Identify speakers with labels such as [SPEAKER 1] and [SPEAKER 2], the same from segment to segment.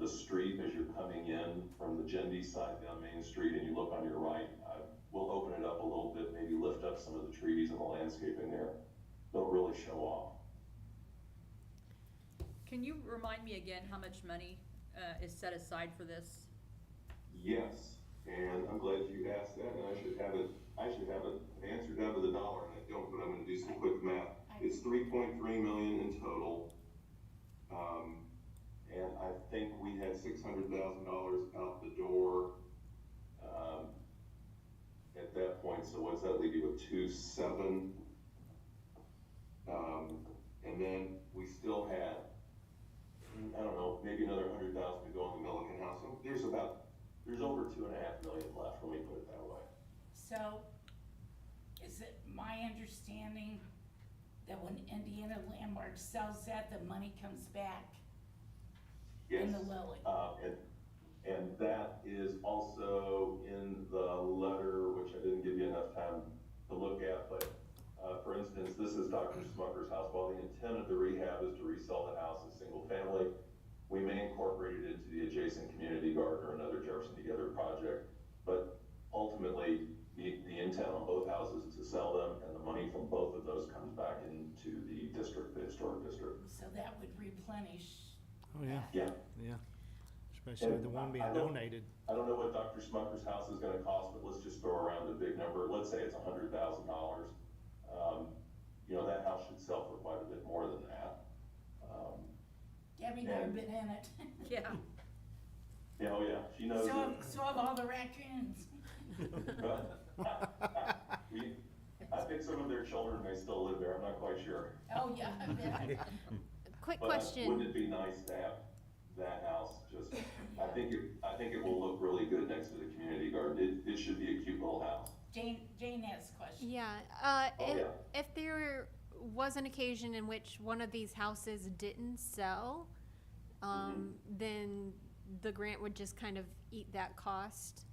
[SPEAKER 1] the street as you're coming in from the Gendy side down Main Street and you look on your right, uh, we'll open it up a little bit, maybe lift up some of the trees and the landscaping there. They'll really show off.
[SPEAKER 2] Can you remind me again how much money uh, is set aside for this?
[SPEAKER 1] Yes, and I'm glad you asked that, and I should have it, I should have it answered down to the dollar, and I don't, but I'm gonna do some quick math. It's three point three million in total. Um, and I think we had six hundred thousand dollars out the door, um, at that point, so what's that leave you with, two seven? Um, and then we still had, I don't know, maybe another hundred thousand to go on the Milliken House, so there's about there's over two and a half million left, let me put it that way.
[SPEAKER 3] So, is it my understanding that when Indiana Landmark sells that, the money comes back in the Lilly?
[SPEAKER 1] Uh, and, and that is also in the letter, which I didn't give you enough time to look at, but, uh, for instance, this is Dr. Smucker's house. While the intent of the rehab is to resell the house as single family, we may incorporate it into the adjacent community garden or another Jefferson Together project. But ultimately, the, the intent on both houses is to sell them, and the money from both of those comes back into the district, the historic district.
[SPEAKER 3] So that would replenish.
[SPEAKER 4] Oh, yeah,
[SPEAKER 1] Yeah,
[SPEAKER 4] yeah. Especially the one being donated.
[SPEAKER 1] I don't know what Dr. Smucker's house is gonna cost, but let's just throw around the big number, let's say it's a hundred thousand dollars. Um, you know, that house should sell for quite a bit more than that. Um,
[SPEAKER 3] Debbie never been in it.
[SPEAKER 2] Yeah,
[SPEAKER 1] yeah, oh yeah, she knows
[SPEAKER 3] So, have-
[SPEAKER 1] it.
[SPEAKER 3] so have all the raccoons.
[SPEAKER 1] We- I think some of their children may still live there, I'm not quite sure.
[SPEAKER 3] Oh, yeah, I bet.
[SPEAKER 5] Quick
[SPEAKER 1] But uh, Wouldn't
[SPEAKER 5] question,
[SPEAKER 1] it be nice to have that house just, I think it, I think it will look really good next to the community garden, it, it should be a cute little house.
[SPEAKER 3] Jane, Jane has a question.
[SPEAKER 5] yeah, uh,
[SPEAKER 1] Oh,
[SPEAKER 5] if,
[SPEAKER 1] yeah.
[SPEAKER 5] if there was an occasion in which one of these houses didn't sell, um,
[SPEAKER 1] Mm-hmm.
[SPEAKER 5] then the grant would just kind of eat that cost?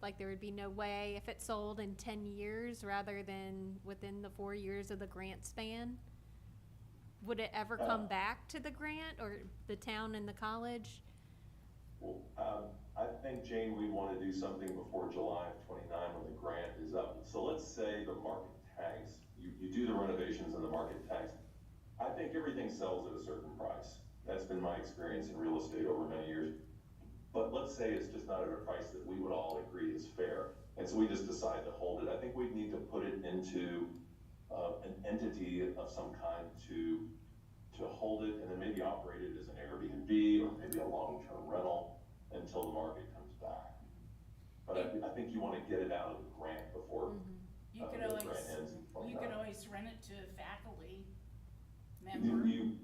[SPEAKER 5] Like there would be no way if it sold in ten years rather than within the four years of the grant span? Would it ever
[SPEAKER 1] Uh.
[SPEAKER 5] come back to the grant or the town and the college?
[SPEAKER 1] Well, um, I think, Jane, we want to do something before July of twenty-nine when the grant is up. So let's say the market tags, you, you do the renovations and the market tags. I think everything sells at a certain price. That's been my experience in real estate over many years. But let's say it's just not at a price that we would all agree is fair. And so we just decide to hold it. I think we'd need to put it into, uh, an entity of some kind to, to hold it and then maybe operate it as an Airbnb or maybe a long-term rental until the market comes back. But I, I think you wanna get it out of the grant before,
[SPEAKER 3] Mm-hmm. You could
[SPEAKER 1] Uh,
[SPEAKER 3] always,
[SPEAKER 1] raccoons and
[SPEAKER 3] you could
[SPEAKER 1] whatnot.
[SPEAKER 3] always rent it to a faculty
[SPEAKER 1] you,
[SPEAKER 3] member.
[SPEAKER 1] you,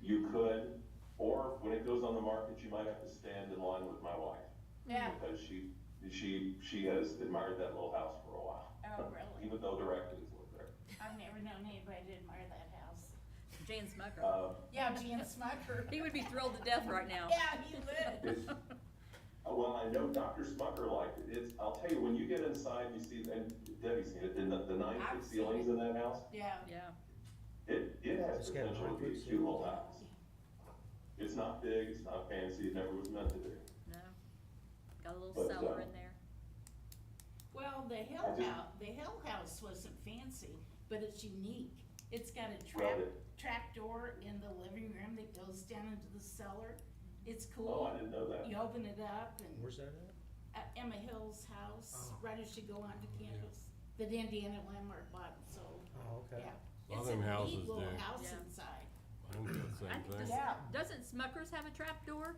[SPEAKER 1] you could, or when it goes on the market, you might have to stand in line with my wife.
[SPEAKER 3] Yeah,
[SPEAKER 1] Because she, she, she has admired that little house for a while,
[SPEAKER 3] oh, really?
[SPEAKER 1] even though directly it's lived there.
[SPEAKER 3] I've never known anybody to admire that house.
[SPEAKER 2] Jane Smucker.
[SPEAKER 1] Um,
[SPEAKER 3] Yeah, Gene Smucker.
[SPEAKER 2] He would be thrilled to death right now.
[SPEAKER 3] Yeah, he would.
[SPEAKER 1] It's- uh, Well, I know Dr. Smucker liked it. It's, I'll tell you, when you get inside, you see, and Debbie's seen it, the, the nine
[SPEAKER 3] I've
[SPEAKER 1] foot
[SPEAKER 3] seen
[SPEAKER 1] ceilings in that house,
[SPEAKER 3] Yeah.
[SPEAKER 2] Yeah,
[SPEAKER 1] it, it has
[SPEAKER 4] It's got
[SPEAKER 1] potential to be a
[SPEAKER 4] concrete
[SPEAKER 1] cute little house. It's not big, it's not fancy, it never was meant to be.
[SPEAKER 2] no. Got a little
[SPEAKER 1] But,
[SPEAKER 2] cellar
[SPEAKER 1] uh,
[SPEAKER 2] in there.
[SPEAKER 3] Well, the
[SPEAKER 1] I
[SPEAKER 3] Hill
[SPEAKER 1] just-
[SPEAKER 3] House, the Hill House wasn't fancy, but it's unique. It's got a
[SPEAKER 1] Well,
[SPEAKER 3] trap,
[SPEAKER 1] it,
[SPEAKER 3] trap door in the living room that goes down into the cellar. It's
[SPEAKER 1] oh,
[SPEAKER 3] cool.
[SPEAKER 1] I didn't know that.
[SPEAKER 3] You open it up and
[SPEAKER 4] Where's that at?
[SPEAKER 3] at Emma Hill's house,
[SPEAKER 4] Oh.
[SPEAKER 3] right as you go onto campus, that Indiana Landmark bought and sold.
[SPEAKER 4] Oh,
[SPEAKER 3] Yeah.
[SPEAKER 4] okay.
[SPEAKER 6] A lot of
[SPEAKER 3] It's a
[SPEAKER 6] them houses
[SPEAKER 3] neat little
[SPEAKER 6] do.
[SPEAKER 3] house
[SPEAKER 2] Yeah.
[SPEAKER 3] inside.
[SPEAKER 6] I'm doing the
[SPEAKER 2] I
[SPEAKER 6] same
[SPEAKER 2] think
[SPEAKER 6] thing.
[SPEAKER 2] this-
[SPEAKER 3] Yeah.
[SPEAKER 2] Doesn't Smucker's have a trap door?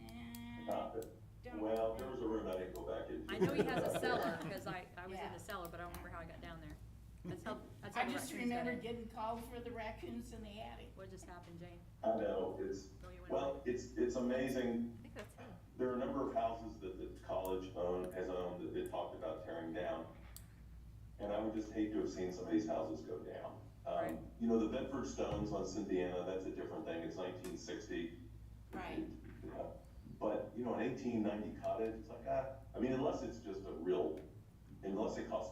[SPEAKER 3] And
[SPEAKER 1] Not that-
[SPEAKER 3] eh, don't-
[SPEAKER 1] Uh, Well, there was a room I didn't go back into.
[SPEAKER 2] I know he has a cellar, cause I, I was in
[SPEAKER 3] Yeah.
[SPEAKER 2] the cellar, but I don't remember how I got down there. That's how, that's how
[SPEAKER 3] I
[SPEAKER 2] the
[SPEAKER 3] just
[SPEAKER 2] raccoons got
[SPEAKER 3] remember
[SPEAKER 2] in.
[SPEAKER 3] getting called for the raccoons in the attic.
[SPEAKER 2] What just happened, Jane?
[SPEAKER 1] I know, it's,
[SPEAKER 2] Oh, you went away.
[SPEAKER 1] well, it's, it's amazing
[SPEAKER 2] I think that's him.
[SPEAKER 1] there are a number of houses that the college owned, has owned, that they talked about tearing down. And I would just hate to have seen some of these houses go down. Um,
[SPEAKER 2] Right.
[SPEAKER 1] you know, the Bedford Stones on Cynthiana, that's a different thing, it's nineteen sixty.
[SPEAKER 3] Right.
[SPEAKER 1] But, you know, an eighteen ninety cottage, it's like, ah, I mean, unless it's just a real, unless it costs